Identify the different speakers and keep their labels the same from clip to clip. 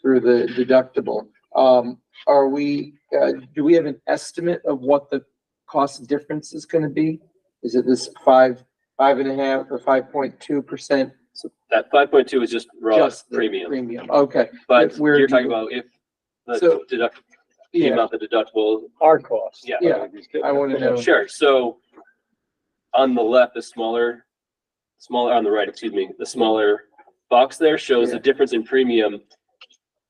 Speaker 1: for the deductible. Um, are we, uh, do we have an estimate of what the cost difference is gonna be? Is it this five, five and a half or five point two percent?
Speaker 2: That five point two is just raw premium,
Speaker 1: Premium, okay.
Speaker 2: but
Speaker 1: Where
Speaker 2: you're
Speaker 1: do
Speaker 2: talking
Speaker 1: you-
Speaker 2: about if the
Speaker 1: So-
Speaker 2: deduct,
Speaker 1: Yeah.
Speaker 2: came out the deductible,
Speaker 3: Our cost.
Speaker 2: yeah.
Speaker 1: Yeah, I want to know.
Speaker 2: Sure, so on the left, the smaller, smaller, on the right, excuse me, the smaller box there shows the
Speaker 1: Yeah.
Speaker 2: difference in premium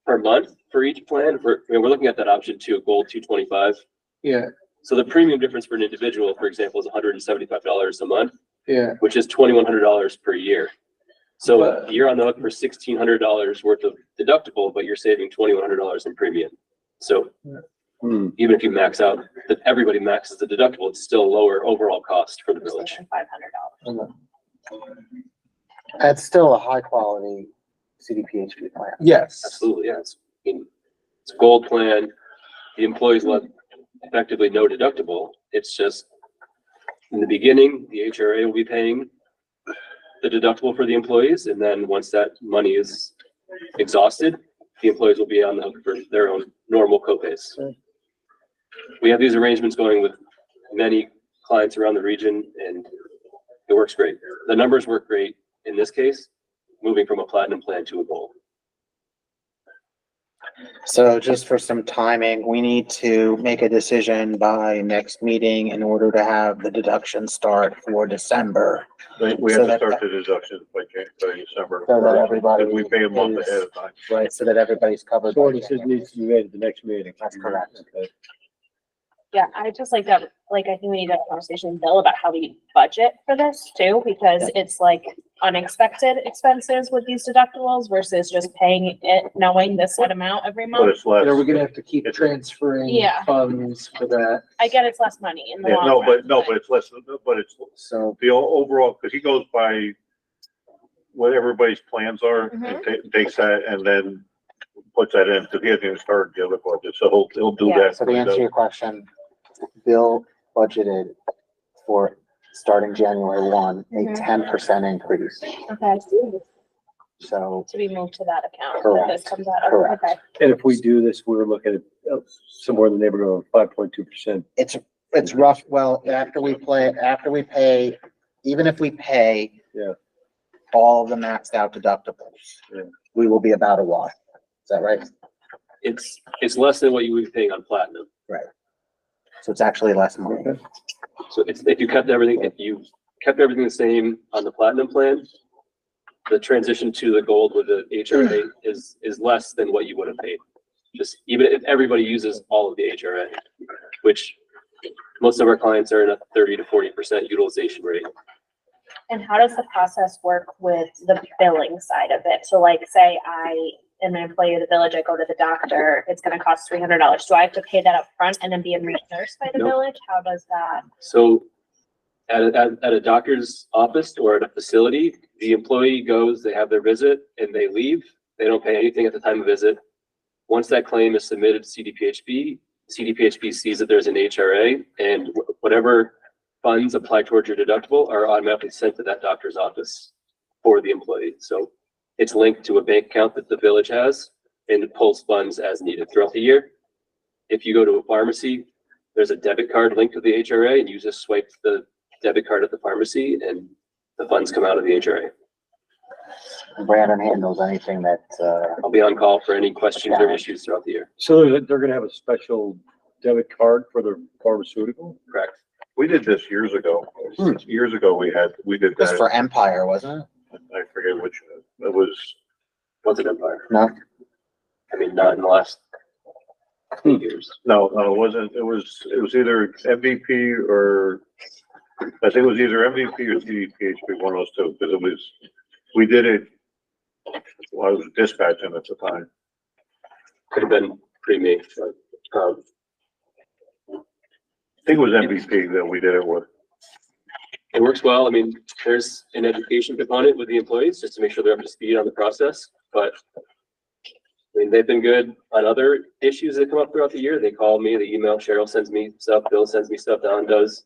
Speaker 2: per month for each plan. We're, I mean, we're looking at that option two, gold two twenty-five.
Speaker 1: Yeah,
Speaker 2: So the premium difference for an individual, for example, is hundred and seventy-five dollars a month,
Speaker 1: yeah,
Speaker 2: which is twenty-one hundred dollars per year. So uh,
Speaker 1: But-
Speaker 2: you're on the hook for sixteen hundred dollars worth of deductible, but you're saving twenty-one hundred dollars in premium. So
Speaker 4: Hmm.
Speaker 2: even if you max out, that everybody maxes the deductible, it's still lower overall cost for the village.
Speaker 5: Five hundred dollars.
Speaker 3: That's still a high quality CDPHP plan.
Speaker 1: yes.
Speaker 2: Absolutely, yeah. It's, I mean, it's a gold plan. The employees left effectively no deductible. It's just in the beginning, the HRA will be paying the deductible for the employees, and then once that money is exhausted, the employees will be on the hook for their own normal copays. We have these arrangements going with many clients around the region, and it works great. The numbers work great in this case, moving from a platinum plan to a gold.
Speaker 3: So just for some timing, we need to make a decision by next meeting in order to have the deduction start for December.
Speaker 4: They- We
Speaker 3: So
Speaker 4: have to
Speaker 3: that-
Speaker 4: start the deductions by Jan, by December.
Speaker 3: So that
Speaker 4: first,
Speaker 3: everybody
Speaker 4: And we pay a month
Speaker 3: is-
Speaker 4: ahead of time.
Speaker 3: Right. So that everybody's covered. by
Speaker 6: Ordinances
Speaker 3: January.
Speaker 6: needs to be read at the next meeting.
Speaker 3: That's correct.
Speaker 6: Okay.
Speaker 5: Yeah, I just like that, like, I think we need to have a conversation with Bill about how we budget for this too, because it's like unexpected expenses with these deductibles versus just paying it, knowing this set amount every
Speaker 4: But
Speaker 5: month.
Speaker 4: it's
Speaker 1: And are we
Speaker 4: less.
Speaker 1: gonna have to keep transferring
Speaker 5: Yeah.
Speaker 1: funds for that?
Speaker 5: I get it's less money in the
Speaker 4: Yeah,
Speaker 5: long
Speaker 4: no,
Speaker 5: run.
Speaker 4: but, no, but it's less, but it's
Speaker 3: So
Speaker 4: the o- overall, because he goes by what everybody's plans are and ta- takes that and then puts that in, because he hasn't even started the other budget, so he'll, he'll do
Speaker 5: Yeah.
Speaker 4: that.
Speaker 3: So to answer your question, Bill budgeted for starting January one, a
Speaker 5: Mhm.
Speaker 3: ten percent increase.
Speaker 5: Okay,
Speaker 3: So
Speaker 5: to be moved to that account, that this
Speaker 3: Correct.
Speaker 5: comes out of,
Speaker 3: Correct.
Speaker 5: okay.
Speaker 6: And if we do this, we're looking at uh, somewhere in the neighborhood of five point two percent.
Speaker 3: it's, it's rough, well, after we play, after we pay, even if we pay
Speaker 6: Yeah.
Speaker 3: all of the maxed out deductibles,
Speaker 6: Yeah.
Speaker 3: we will be about a wash. Is that right?
Speaker 2: It's, it's less than what you would be paying on platinum.
Speaker 3: So it's actually less money.
Speaker 2: So it's, if you kept everything, if you kept everything the same on the platinum plan, the transition to the gold with the HRA is, is less than what you would have paid. Just even if everybody uses all of the HRA, which most of our clients are in a thirty to forty percent utilization rate.
Speaker 5: And how does the process work with the billing side of it? So like, say I am an employee of the village, I go to the doctor, it's gonna cost three hundred dollars. Do I have to pay that up front and then be reimbursed by the
Speaker 2: No.
Speaker 5: village? How does that?
Speaker 2: So at, a- at, at a doctor's office or at a facility, the employee goes, they have their visit and they leave. They don't pay anything at the time of visit. Once that claim is submitted to CDPHB, CDPHB sees that there's an HRA and wh- whatever funds applied towards your deductible are automatically sent to that doctor's office for the employee. So it's linked to a bank account that the village has and it pulls funds as needed throughout the year. If you go to a pharmacy, there's a debit card linked to the HRA and you just swipe the debit card at the pharmacy and the funds come out of the HRA.
Speaker 3: Brandon handles anything that, uh,
Speaker 2: I'll be on call for any questions or issues throughout the year,
Speaker 6: So they're, they're gonna have a special debit card for the pharmaceutical?
Speaker 2: correct?
Speaker 4: We did this years ago.
Speaker 3: Hmm.
Speaker 4: Years ago, we had, we did
Speaker 3: was
Speaker 4: that.
Speaker 3: for Empire, wasn't it?
Speaker 4: I forget which, it was,
Speaker 2: What's an empire?
Speaker 3: No?
Speaker 2: I mean, not in the last few years.
Speaker 4: no, no, it wasn't, it was, it was either MVP or, I think it was either MVP or CDPHP, one of those two, because it was, we did it, well, I was dispatching at the time.
Speaker 2: Could have been pre-me, but, um,
Speaker 4: I think it was MVP that we did it with.
Speaker 2: it works well. I mean, there's an education component with the employees just to make sure they're up to speed on the process, but I mean, they've been good on other issues that come up throughout the year. They call me, they email, Cheryl sends me stuff, Bill sends me stuff, Don does.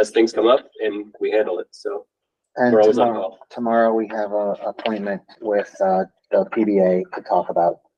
Speaker 2: As things come up and we handle it, so
Speaker 3: And
Speaker 2: we're always on
Speaker 3: tomorrow,
Speaker 2: call.
Speaker 3: tomorrow we have a appointment with, uh, the PBA to talk about